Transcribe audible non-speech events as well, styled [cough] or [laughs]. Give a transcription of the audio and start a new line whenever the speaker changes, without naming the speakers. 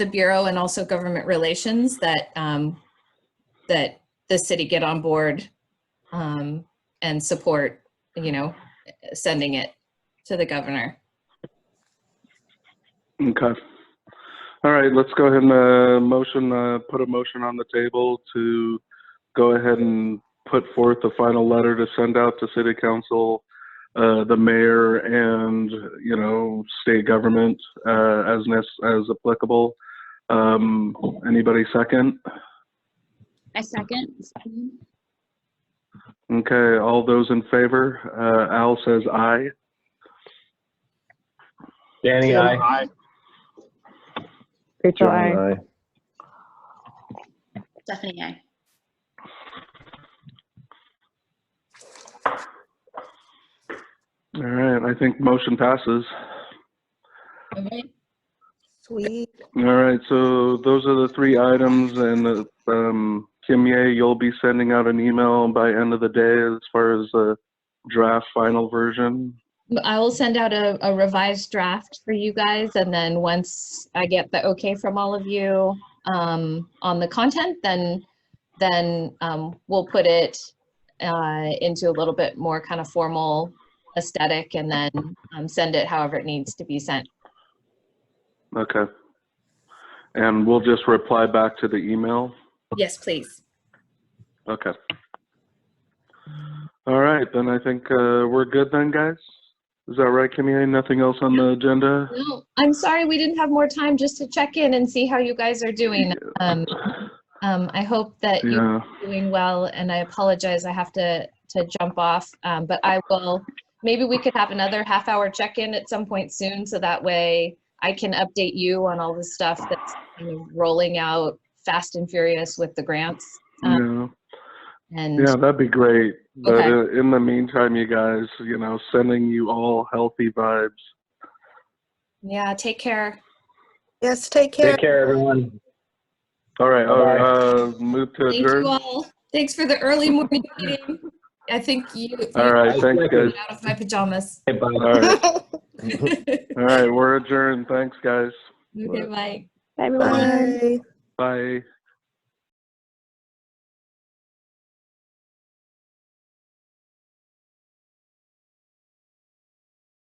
the Bureau and also government relations that, um, that the city get on board, um, and support, you know, sending it to the governor.
Okay. All right, let's go ahead and, uh, motion, uh, put a motion on the table to go ahead and put forth the final letter to send out to city council, uh, the mayor and, you know, state government, uh, as nec- as applicable. Um, anybody second?
I second.
Okay, all those in favor? Uh, Al says aye.
Danny, I.
Rachel, I.
Stephanie, I.
All right, I think motion passes.
All right.
Sweet.
All right, so those are the three items, and uh, um, Kim Ye, you'll be sending out an email by end of the day as far as the draft final version.
I will send out a, a revised draft for you guys, and then once I get the okay from all of you um, on the content, then, then um, we'll put it uh, into a little bit more kind of formal aesthetic, and then um, send it however it needs to be sent.
Okay. And we'll just reply back to the email.
Yes, please.
Okay. All right, then I think uh, we're good then, guys? Is that right, Kim Ye? Nothing else on the agenda?
No, I'm sorry we didn't have more time just to check in and see how you guys are doing. Um, um, I hope that you
Yeah.
doing well, and I apologize, I have to, to jump off, um, but I will, maybe we could have another half-hour check-in at some point soon, so that way I can update you on all the stuff that's kind of rolling out fast and furious with the grants, um,
Yeah.
and,
Yeah, that'd be great. But
Okay.
uh, in the meantime, you guys, you know, sending you all healthy vibes.
yeah, take care.
Yes, take care.
Take care, everyone.
All right,
Bye-bye.
uh, uh, move to
Thank you
adjourn.
all, thanks for the early morning meeting. I think you, you
All right, thanks,
Thank you.
got
guys.
me out of my pajamas. [laughs]
Hey, bye.
All right, all right, we're adjourned. Thanks, guys.
Okay, bye.
Bye, everyone.
Bye.
Bye.